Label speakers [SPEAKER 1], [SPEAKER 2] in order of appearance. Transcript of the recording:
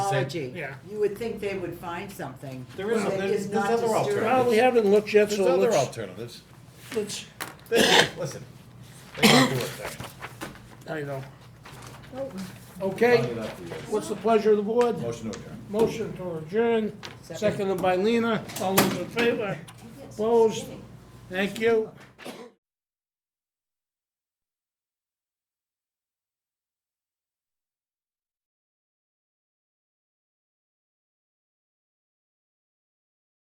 [SPEAKER 1] technology.
[SPEAKER 2] yeah.
[SPEAKER 1] You would think they would find something.
[SPEAKER 3] There is a-
[SPEAKER 1] that
[SPEAKER 3] there's-
[SPEAKER 1] is
[SPEAKER 3] there's
[SPEAKER 1] not
[SPEAKER 3] other
[SPEAKER 1] disturbing.
[SPEAKER 2] Well, we haven't looked yet,
[SPEAKER 3] There's
[SPEAKER 2] so
[SPEAKER 3] other
[SPEAKER 2] let's,
[SPEAKER 3] alternatives.
[SPEAKER 2] let's,
[SPEAKER 3] They- Listen, they can do it there.
[SPEAKER 2] I know. Okay,
[SPEAKER 3] Leave it up to you.
[SPEAKER 2] what's the pleasure of the board?
[SPEAKER 3] Oh. Motion to adjourn.
[SPEAKER 2] Motion to adjourn,
[SPEAKER 1] Second.
[SPEAKER 2] seconded by Lena, all those in favor? Opposed? Thank you.